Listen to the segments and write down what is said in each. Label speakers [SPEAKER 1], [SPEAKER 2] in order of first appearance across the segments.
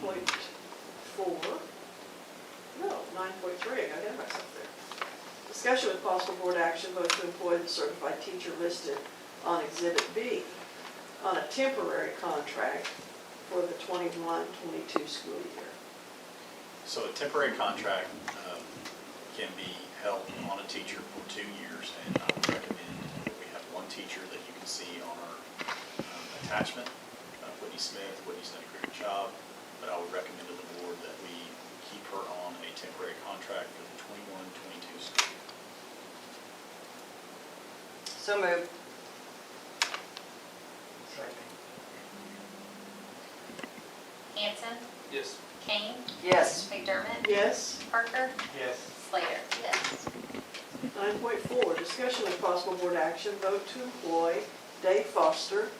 [SPEAKER 1] point four, no, nine point three, I got ahead of myself there. Discussion with possible board action, vote to employ the certified teacher listed on Exhibit B on a temporary contract for the 21-22 school year.
[SPEAKER 2] So a temporary contract um, can be held on a teacher for two years, and I would recommend that we have one teacher that you can see on our um, attachment, uh, Whitney Smith. Whitney's done a great job, but I would recommend to the board that we keep her on a temporary contract for the 21-22 school year.
[SPEAKER 3] So moved.
[SPEAKER 4] Hanson,
[SPEAKER 5] Yes.
[SPEAKER 4] Kane,
[SPEAKER 3] Yes.
[SPEAKER 4] McDermott,
[SPEAKER 1] Yes?
[SPEAKER 4] Parker,
[SPEAKER 5] Yes.
[SPEAKER 4] Slater. Yes.
[SPEAKER 1] Nine point four, discussion with possible board action, vote to employ Dave Foster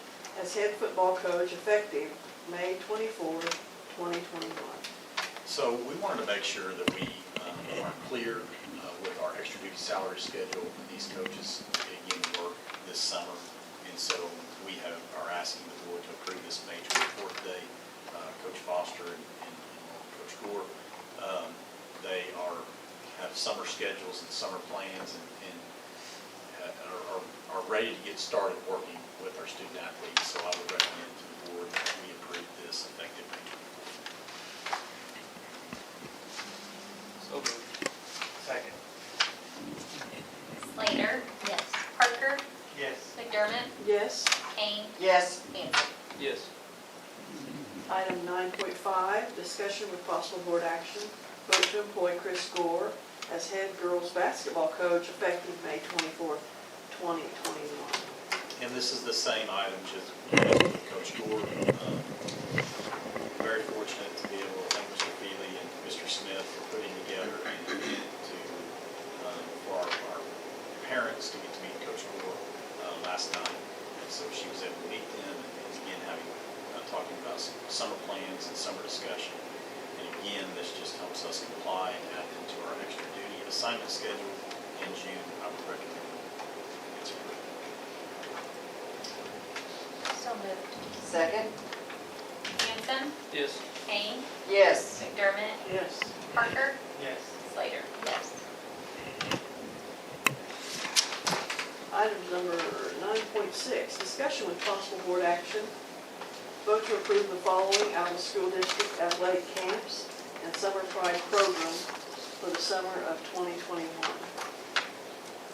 [SPEAKER 1] as head football coach effective May 24, 2021.
[SPEAKER 2] So we wanted to make sure that we um, are clear uh, with our extra duty salary schedule. when These coaches begin work this summer, and so we have, are asking the board to approve this May 24th day. Uh, Coach Foster and and Coach Gore, um, they are, have summer schedules and summer plans and- and uh, are- are are ready to get started working with our student athletes. So I would recommend to the board that we approve this effective May 24th.
[SPEAKER 5] So moved. Second.
[SPEAKER 4] Slater. Yes. Parker,
[SPEAKER 5] Yes.
[SPEAKER 4] McDermott,
[SPEAKER 1] Yes?
[SPEAKER 4] Kane,
[SPEAKER 3] Yes.
[SPEAKER 4] Hanson.
[SPEAKER 5] Yes.
[SPEAKER 1] Item nine point five, discussion with possible board action, vote to employ Chris Gore as head girls basketball coach effective May 24, 2021.
[SPEAKER 2] And this is the same item, just with Coach Gordon. Um, Very fortunate to be able to thank Mr. Feely and Mr. Smith for putting together an event to, um, for our our parents to get to meet Coach Gore uh, last night. And so she was able to meet them and and again, having, uh, talking about some summer plans and summer discussion. And again, this just helps us comply and add them to our extra duty assignment schedule in June. I would recommend it's approved.
[SPEAKER 4] So moved.
[SPEAKER 3] Second?
[SPEAKER 4] Hanson,
[SPEAKER 5] Yes.
[SPEAKER 4] Kane,
[SPEAKER 3] Yes.
[SPEAKER 4] McDermott,
[SPEAKER 1] Yes.
[SPEAKER 4] Parker,
[SPEAKER 5] Yes.
[SPEAKER 4] Slater. Yes.
[SPEAKER 1] Item number nine point six, discussion with possible board action, vote to approve the following out of school district athletic camps and summer pride program for the summer of twenty twenty-one.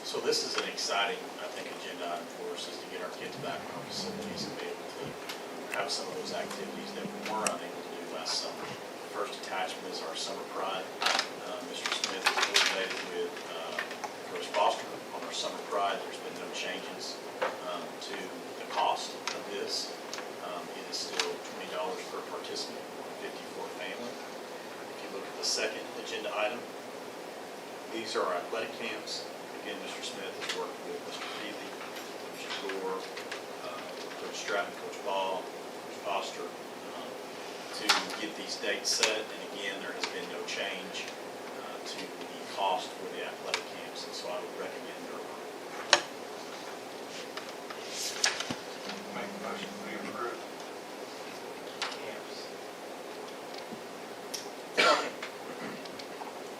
[SPEAKER 2] So this is an exciting, I think, agenda item for us, is to get our kids back in our facilities and be able to have some of those activities that we were unable to do last summer. The First attachment is our summer pride. Uh, Mr. Smith has coordinated with uh, Coach Foster on our summer pride. There's been no changes um, to the cost of this. Um, It is still twenty dollars per participant, fifty for a family. If you look at the second agenda item, these are our athletic camps. Again, Mr. Smith has worked with Mr. Feely, Mr. Gore, uh, Coach Stratton, Coach Ball, Coach Foster, um, to get these dates set. And again, there has been no change uh, to the cost for the athletic camps, and so I would recommend their approval.
[SPEAKER 5] Make a motion we approve. Camps.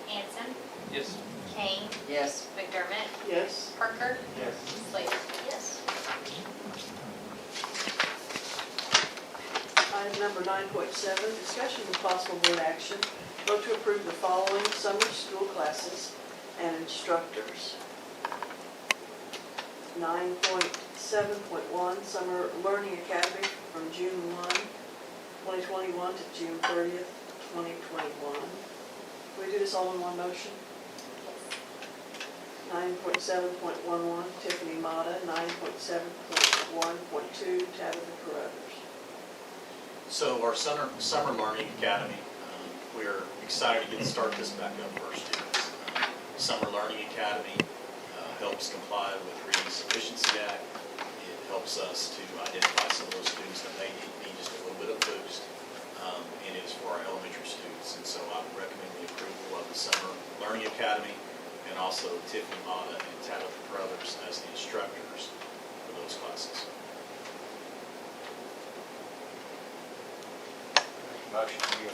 [SPEAKER 4] Hanson,
[SPEAKER 5] Yes.
[SPEAKER 4] Kane,
[SPEAKER 3] Yes.
[SPEAKER 4] McDermott,
[SPEAKER 1] Yes?
[SPEAKER 4] Parker,
[SPEAKER 5] Yes.
[SPEAKER 4] Slater. Yes.
[SPEAKER 1] Item number nine point seven, discussion with possible board action, vote to approve the following summer school classes and instructors. Nine point seven point one, Summer Learning Academy from June 1, 2021 to June thirtieth, twenty twenty-one. We do this all in one motion? Nine point seven point one one, Tiffany Mata, nine point seven point one point two, Tabitha Carruthers.
[SPEAKER 2] So our summer, summer learning academy, um, we're excited to get, start this back up for our students. Um, Summer Learning Academy uh, helps comply with Reading Sufficiency Act. It helps us to identify some of those students that may need need just a little bit of boost. um, And it is for our elementary students. And so I would recommend the approval of the Summer Learning Academy and also Tiffany Mata and Tabitha Brothers as the instructors for those classes.
[SPEAKER 5] Motion we